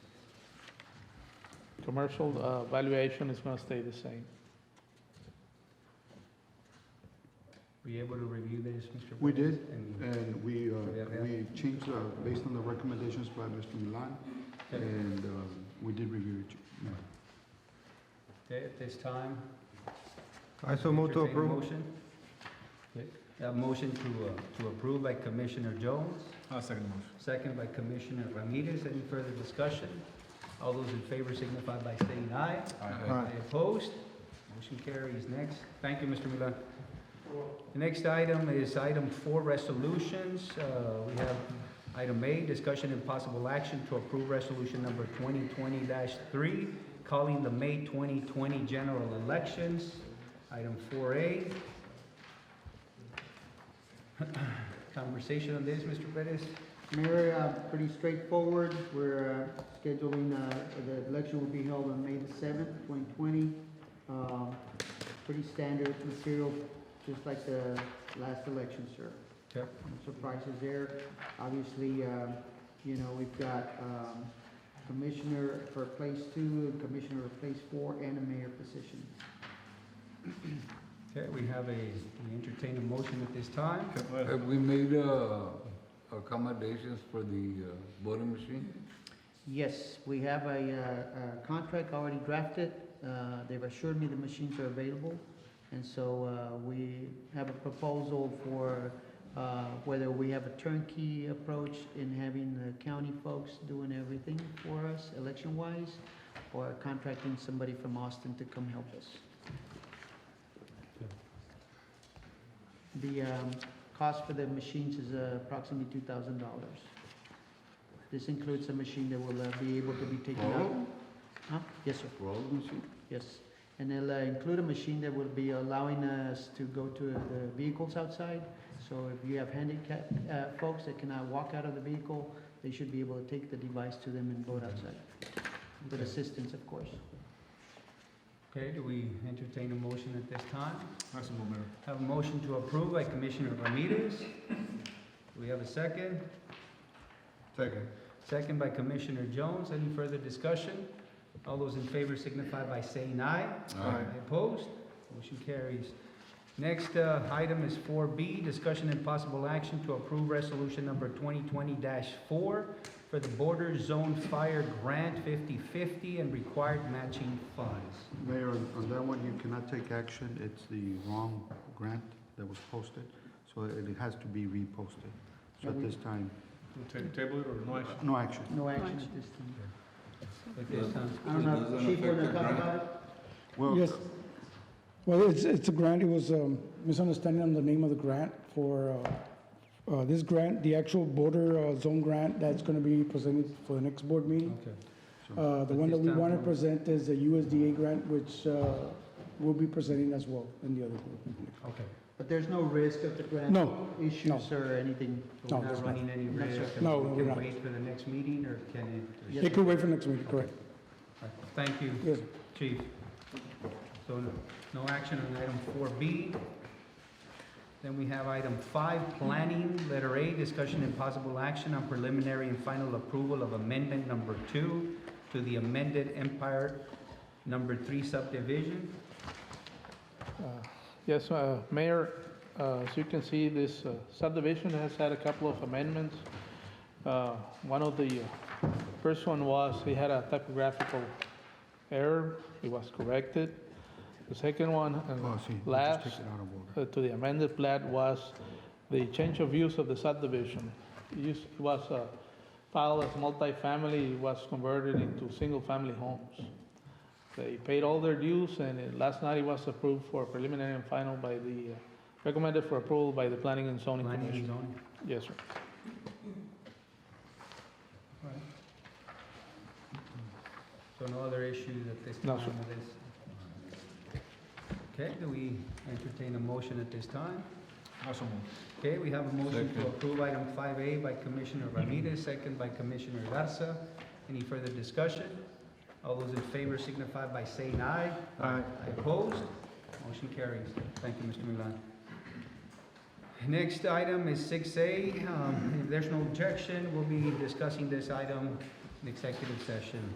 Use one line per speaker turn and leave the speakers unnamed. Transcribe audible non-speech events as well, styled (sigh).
Commercial uh, valuation is gonna stay the same.
Were you able to review this, Mr.
We
Perez?
did.
And
And we, uh,
Yeah, yeah.
we changed, uh, based on the recommendations by Mr. Milan, and um, we did review it. Madam.
okay, At this time?
I so move to
entertain a
approve.
Motion? Okay, A motion to, uh, to approve by Commissioner Jones,
I'll second the motion.
second by Commissioner Ramirez. Any further discussion? All those in favor signify by saying aye.
Aye.
Any Opposed? Motion carries. Next. Thank you, Mr. Milan. The next item is item four, resolutions. Uh, We have item A, discussion and possible action to approve resolution number twenty twenty three, calling the May twenty twenty general elections. Item four A. (coughs) Conversation on this, Mr. Perez?
Mayor, uh, pretty straightforward. We're uh, scheduling, uh, the election will be held on May the seventh, twenty twenty. Um, Pretty standard material, just like the last election, sir.
Yep.
No Surprises there. Obviously, uh, you know, we've got um, commissioner for place two, commissioner for place four, and a mayor position.
Okay, we have a, we entertain a motion at this time.
Have we made uh, accommodations for the uh, voting machine?
Yes, we have a, uh, a contract already drafted. Uh, They've assured me the machines are available. And so uh, we have a proposal for uh, whether we have a turnkey approach in having the county folks doing everything for us election-wise, or contracting somebody from Austin to come help us. The um, cost for the machines is uh, approximately two thousand dollars. This includes a machine that will uh, be able to be taken out.
Roll,
Huh? Yes, sir.
roll machine?
Yes. And they'll uh, include a machine that will be allowing us to go to the vehicles outside. So if you have handicapped uh, folks that cannot walk out of the vehicle, they should be able to take the device to them and vote outside. With
Okay.
assistance, of course.
Okay, do we entertain a motion at this time?
I'll second the motion.
Have a motion to approve by Commissioner Ramirez. Do we have a second?
Second.
Second by Commissioner Jones. Any further discussion? All those in favor signify by saying aye.
Aye.
Opposed? Motion carries. Next uh, item is four B, discussion and possible action to approve resolution number twenty twenty four for the border zone fire grant 50/50 and required matching funds.
Mayor, on on that one, you cannot take action. It's the wrong grant that was posted, so it has to be reposted. So at this time,
Table it or no action?
no action.
No action at this time.
At this time,
I don't know,
doesn't
Chief, wanna
affect the
talk
grant?
about it?
Well,
Yes. Well, it's, it's a grant, it was a misunderstanding on the name of the grant for, uh, uh, this grant, the actual border uh, zone grant that's gonna be presented for the next board meeting.
okay.
Uh, the
But
one that
this
we
time
wanna
we-
present is the USDA grant, which, uh, we'll be presenting as well in the other group.
Okay.
But there's no risk of the grant
No, no.
issues or anything?
We're
No,
not
that's not-
running any
that's
risk?
No,
We
we're
Can
not.
wait for the next meeting, or can it?
Yes.
It could wait for next meeting, correct,
Thank you,
yes.
Chief. So no- no action on item four B. Then we have item five, planning, letter A, discussion and possible action on preliminary and final approval of amendment number two to the amended Empire Number Three subdivision.
Uh,
Yes, uh, Mayor, uh, as you can see, this uh, subdivision has had a couple of amendments. Uh, One of the uh, first one was, it had a typographical error, it was corrected. The second one,
Oh,
uh,
see, we just
Last.
take it out of order.
uh, to the amended plat was the change of use of the subdivision. It used- It was uh, filed as multifamily, it was converted into single-family homes. They paid all their dues, and it- last night it was approved for preliminary and final by the, uh, recommended for approval by the Planning and Zoning
Planning and
Commission.
zoning.
Yes, sir.
So no other issues at this
No,
time
sir.
with this? Okay, do we entertain a motion at this time?
I'll second
Okay, we have a motion to
Second.
approve item five A by Commissioner Ramirez, second by Commissioner Garza. Any further discussion? All those in favor signify by saying aye.
Aye.
I Opposed? Motion carries. Thank you, Mr. Milan. Next item is six A. Um, If there's no objection, we'll be discussing this item in executive session.